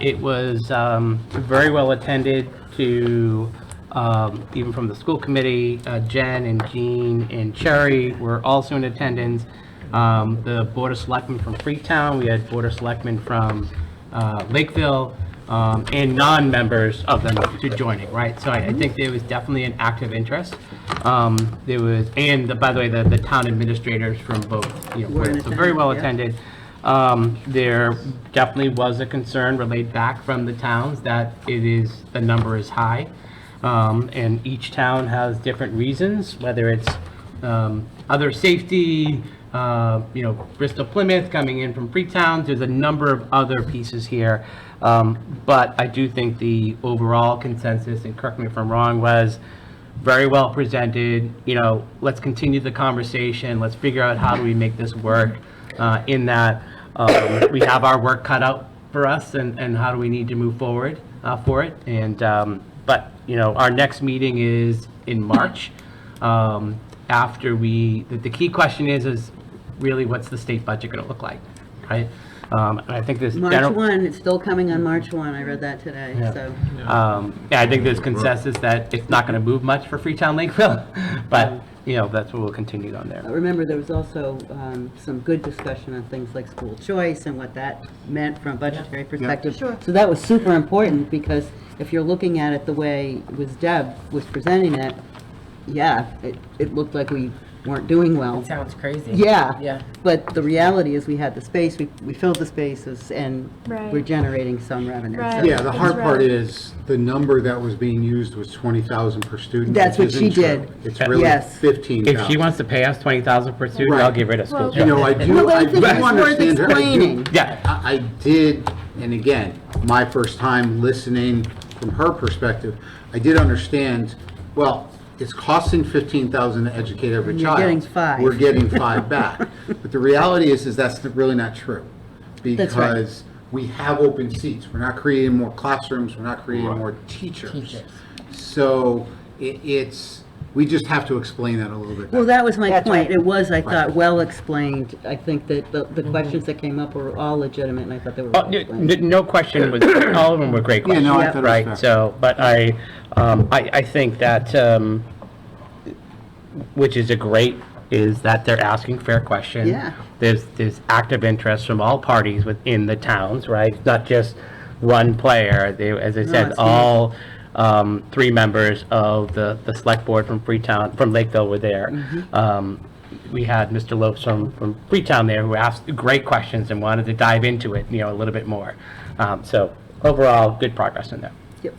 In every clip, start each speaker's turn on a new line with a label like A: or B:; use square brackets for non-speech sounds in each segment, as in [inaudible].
A: It was um, very well attended to, um, even from the school committee, uh, Jen and Jean and Cherry were also in attendance. Um, The Board of Selectmen from Freetown, we had Board of Selectmen from uh, Lakeville, um, and non-members of them to joining, right? So I I think there was definitely an active interest. Um, There was, and the- by the way, the the town administrators from both, you know,
B: Were in
A: so very well
B: attendance, yeah.
A: attended attended. Um, There definitely was a concern relayed back from the towns that it is, the number is high. Um, And each town has different reasons, whether it's um, other safety, uh, you know, Bristol Plymouth coming in from Freetown. There's a number of other pieces here. Um, But I do think the overall consensus, and correct me if I'm wrong, was very well presented, you know, let's continue the conversation, let's figure out how do we make this work, uh, in that, um, we have our work cut out for us, and, and how do we need to move forward, uh, for it, and, um, but, you know, our next meeting is in March, um, after we, the, the key question is, is really what's the state budget gonna look like, right? Um, and I think this general.
B: March 1, it's still coming on March 1, I read that today, so.
A: Um, Yeah, I think there's consensus that it's not going to move much for Freetown Lakeville, [laughs] but, you know, that's what we'll continue on
B: Uh,
A: there.
B: Remember, there was also um, some good discussion on things like school choice and what that meant from a budgetary perspective.
C: Sure.
B: So that was super important, because if you're looking at it the way it was Deb was presenting it, yeah, it, it looked like we weren't doing well.
C: Sounds crazy.
B: Yeah.
C: Yeah.
B: But the reality is, we had the space, we, we filled the spaces, and we're
D: Right.
B: generating some revenue.
D: Right.
B: So
E: Yeah, the hard part
D: Right.
E: is, the number that was being used was 20,000 per student.
B: That's
E: which
B: what she
E: isn't true.
B: did.
E: It's
A: Yeah.
E: really
B: Yes.
A: If she
E: 15,000.
A: wants to pay us 20000 per student, I'll
E: Right.
A: get rid of school
D: Well,
E: You
A: choice.
E: know, I
B: No,
E: do,
B: but I
E: I
B: think
E: do
B: it's worth
E: understand her. I do-
B: explaining.
A: Yeah.
E: I I did, and again, my first time listening from her perspective, I did understand, well, it's costing 15,000 to educate every
B: You're
E: child.
B: getting five.
E: We're getting five back. But the reality is, is that's really not true.
B: That's right.
E: Because we have open seats. We're not creating more classrooms, we're not creating more teachers.
C: Teachers.
E: So it, it's, we just have to explain that a little bit.
B: Well,
E: better.
B: that was my
C: That's
B: point.
C: right.
B: It was, I thought, well explained. I think that the, the questions that came up were all legitimate, and I thought they were
A: Oh,
B: well
A: n-
B: explained.
A: n- No question,
E: [coughs]
A: was all of them were great
E: Yeah,
A: questions,
E: no, I
B: Yeah.
E: thought it was fair.
A: right? So, but I, um, I I think that, um, which is a great, is that they're asking fair questions.
B: Yeah.
A: There's, there's active interest from all parties within the towns, right? It's Not just one player. They, as I said,
B: it's
A: all um, three members of the, the select board from Freetown, from Lakeville were there. Um, We had Mr. Lopes from, from Freetown there who asked great questions and wanted to dive into it, you know, a little bit more. Um, So overall, good progress in there.
B: Yep.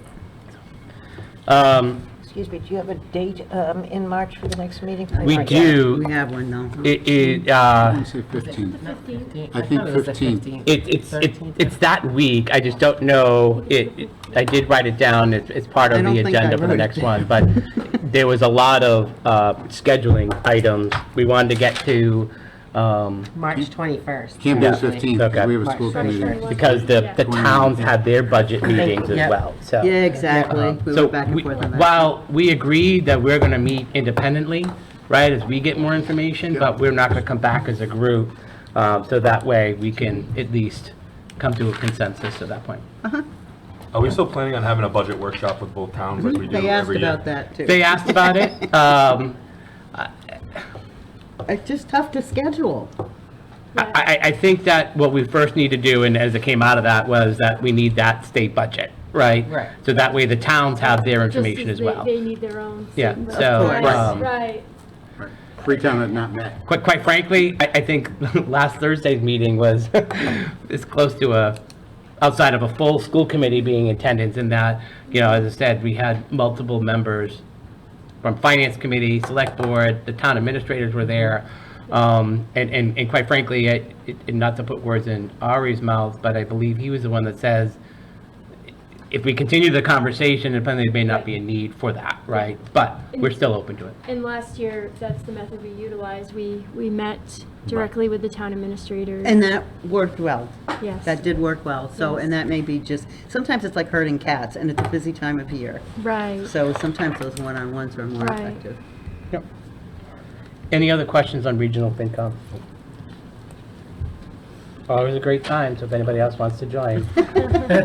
A: Um,
C: Excuse me, do you have a date um, in March for the next meeting?
A: We
C: Not yet.
A: do,
B: We have one, though.
A: it, it, uh,
E: Let me say 15.
C: I
E: think
C: thought it was the
E: 15.
C: 15th.
A: It, it's, it-
C: 13th.
A: it's that week, I just don't know, it, it- I did write it down, it's, it's part
B: I
A: of
B: don't
A: the
B: think I
A: agenda for the
B: wrote
A: next
B: it
A: one, but
B: [laughs]
A: there was a lot of, uh, scheduling items, we wanted to get to, um,
C: March 21st.
E: Can't be
A: Yeah.
E: 15, because we have a school
C: Okay.
E: committee. meeting.
A: because the, the towns had their budget meetings as
C: Yeah.
A: well, so. uh-huh.
B: Yeah, exactly. We
A: So
B: went back and
A: we-
B: forth on that.
A: While we agreed that we're going to meet independently, right, as we get more information, but we're not going to come back as a group. um, So that way, we can at least come to a consensus at that point.
F: Are we still planning on having a budget workshop with both towns like we do
B: Hmm? They asked
F: every year?
B: about that, too.
A: They asked about
D: [laughs]
A: it. um,
B: It's just tough to schedule.
A: I- I, I think that what we first need to do, and as it came out of that, was that we need that state budget, right?
C: Right.
A: So that way, the towns have their
D: Just
A: information as
D: they-
A: well.
D: They need their own.
A: Yeah,
D: separate-
A: so,
D: Right,
A: um,
D: Right,
E: Freetown had not met.
A: Quite, quite frankly, I, I think [laughs] last Thursday's meeting was [laughs] as close to a, outside of a full school committee being in attendance in that, you know, as I said, we had multiple members from finance committee, select board, the town administrators were there. Um, and, and, and quite frankly, I, it- and not to put words in Ari's mouth, but I believe he was the one that says, if we continue the conversation, apparently there may not be a need for that, right? But we're still open to it.
D: and last year, that's the method we utilized, we, we met directly with the town administrators.
B: And that worked well.
D: Yes.
B: That did work well, so, and that may be just, sometimes it's like herding cats, and it's a busy time of year.
D: Right,
B: So sometimes those one-on-ones are more
D: Right.
B: effective.
A: Any other questions on regional FinCom? Always a great time, so if anybody else wants to join. [laughs]